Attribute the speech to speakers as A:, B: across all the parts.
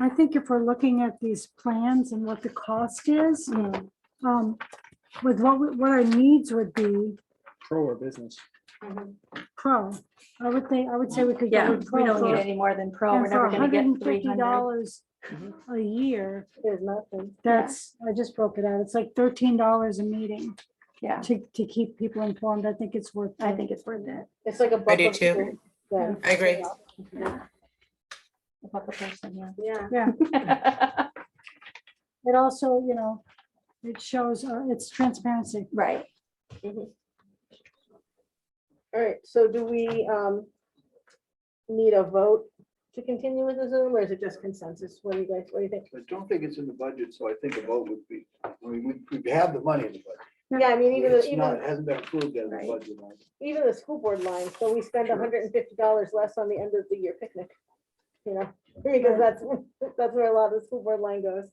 A: I think if we're looking at these plans and what the cost is,
B: Mm.
A: um, with what, we- what our needs would be,
C: pro or business.
A: pro, I would think, I would say we could
B: Yeah,
A: go with pro.
B: we don't need
A: for-
B: any more than pro. We're
A: And for
B: never gonna
A: hundred
B: get
A: and
B: three
A: fifty
B: hundred.
A: dollars a year,
D: There's nothing.
A: that's, I just broke it out, it's like thirteen dollars a meeting
B: Yeah,
A: to, to keep people informed, I think it's worth.
B: I
A: it.
B: think it's worth it.
D: It's like a.
E: I do
D: buffer
E: too.
D: group then.
E: I agree.
B: If I'm a person,
D: Yeah,
B: yeah.
A: It also, you know, it shows, uh, it's transparency.
B: Right.
D: all right, so do we, um, need a vote to continue with the Zoom, or is it just consensus? What do you guys, what do you think?
F: I don't think it's in the budget, so I think a vote would be, I mean, we, we have the money in the budget.
D: Yeah, I mean, even, the
F: It's not, it
D: even,
F: hasn't been approved as
B: Right.
F: a budget. line.
D: even the school board line, so we spend hundred and fifty dollars less on the end of the year picnic. You know, because that's, that's where a lot of the school board line goes.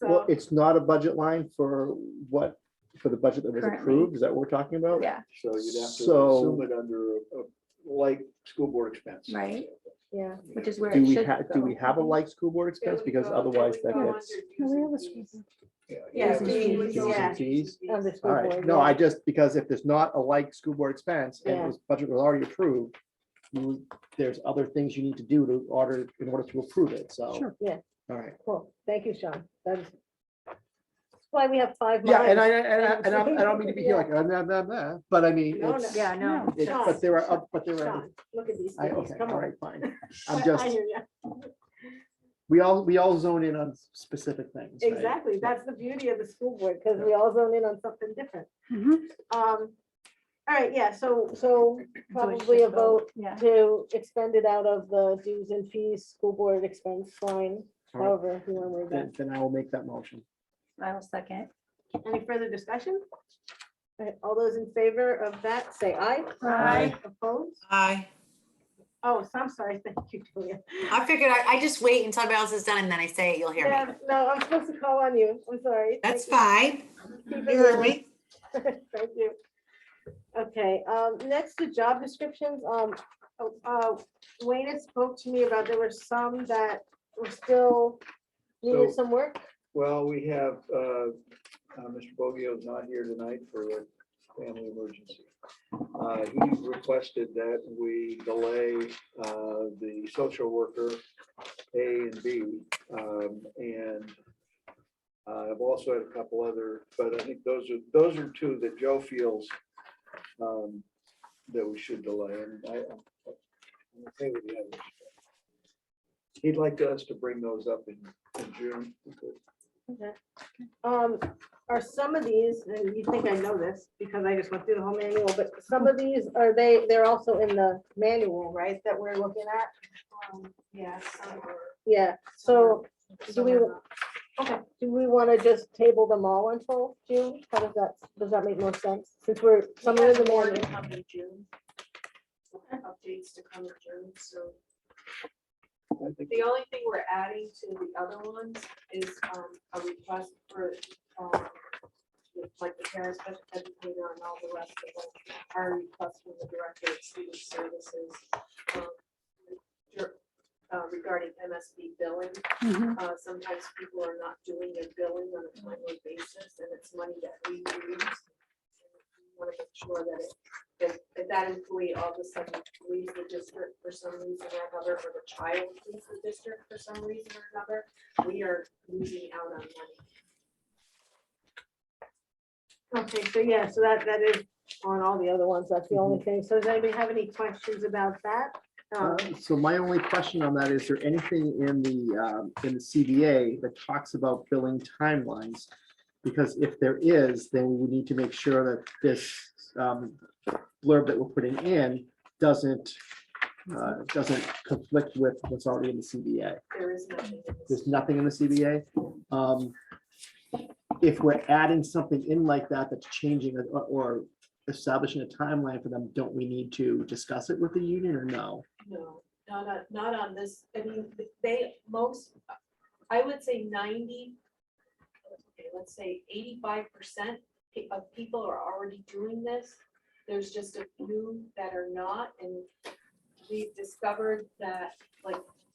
C: Well,
D: So,
C: it's not a budget line for what, for the budget that was
B: Currently.
C: approved, is that what we're talking about?
B: Yeah,
F: So you'd have to
C: So-
F: assume it under, a- like, school board expense.
B: right,
D: yeah,
B: which is where
C: Do
B: it
C: we
B: should
C: have, do we
B: go.
C: have a like school board expense? Because otherwise that gets.
B: Yes,
F: Yeah.
B: fees,
C: Dues
D: yeah.
C: and fees.
D: on Oh, the
C: All
D: school
C: right,
D: board.
C: no,
D: yeah.
C: I just, because if there's not a like school board expense and
D: Yeah.
C: it was budget was already approved, you- there's other things you need to do to order, in order to approve it, so.
A: Sure.
D: Yeah.
C: All right,
D: Cool, thank you, Sean. That is that's why we have five.
C: yeah, and I,
D: minds.
C: and I, and I- I don't mean to be here like, "Ah, nah, nah, nah," but I mean,
D: Oh, No, no.
C: it's,
B: Yeah, no.
C: it- but there are, oth- but there are,
D: Sean, Look at these
C: I,
D: things,
C: okay,
D: come
C: all
D: on.
C: right, fine.
D: I- I
C: I'm just,
D: hear ya.
C: we all, we all zone in on specific things. right?
D: Exactly, that's the beauty of the school board, because we all zone in on something different.
A: Mhm.
D: Um, all right, yeah, so, so
B: So we
D: probably
B: should
D: a vote
B: Yeah,
D: to expend it out of the dues and fees, school board expense line, however, you want to word that.
C: Then, then I will make that motion.
B: I will second.
D: Any further discussion? All right, All those in favor of that, say aye.
B: Aye.
D: Opposed?
E: Aye.
D: Oh, so I'm sorry, thank you, Julia.
E: I figured I, I just wait until everybody else is done and then I say it, you'll hear me.
D: Yeah, No, I'm supposed to call on you, I'm sorry.
E: That's
D: Thank
E: fine.
D: you.
E: You heard me.
D: Thank you. Okay, um, next to job descriptions, um, oh, uh, Wayne had spoke to me about there were some that were still needed
F: So-
D: some work.
F: Well, we have, uh, uh, Mr. Bogio's not here tonight for a family emergency. Uh, He requested that we delay uh, the social worker A and B. um, And uh, I've also had a couple other, but I think those are, those are two that Joe feels um, that we should delay. And I- I'm okay with the others. He'd like us to bring those up in in June. because
D: Um, are some of these, and you think I know this because I just went through the whole manual, but some of these, are they, they're also in the manual, right, that we're looking at?
B: Yes.
D: Yeah, so do we, okay, do we want to just table them all until June? How does that, does that make more sense? Since we're, some of the
G: more to
D: morning,
G: come in June. Updates to come in June, so
F: I think
G: the only thing we're adding to the other ones is um, a request for um, like the parent special educator and all the rest of them, our request from the director of student services um, dir- uh, regarding MSB billing.
B: Mm-hmm.
A: Mhm.
G: Uh, sometimes people are not doing their billing on a timely basis, and it's money that we use. Want to make sure that it, that, if that employee all of a sudden leaves the district for some reason or another, or the child leaves the district for some reason or another, we are losing out on money.
D: okay, so yeah, so that, that is on all the other ones, that's the only thing. So does anybody have any questions about that? Um,
C: Uh, So my only question on that, is there anything in the, um, in the CBA that talks about billing timelines? Because if there is, then we need to make sure that this um, blurb that we're putting in doesn't, uh, doesn't conflict with what's already in the CBA.
G: There is nothing. in this.
C: There's nothing in the CBA. Um, If we're adding something in like that, that's changing it or- or establishing a timeline for them, don't we need to discuss it with the union or no?
G: No, not on, not on this, I mean, they, most, I would say ninety, okay, let's say eighty-five percent of people are already doing this. There's just a few that are not, and we discovered that, like,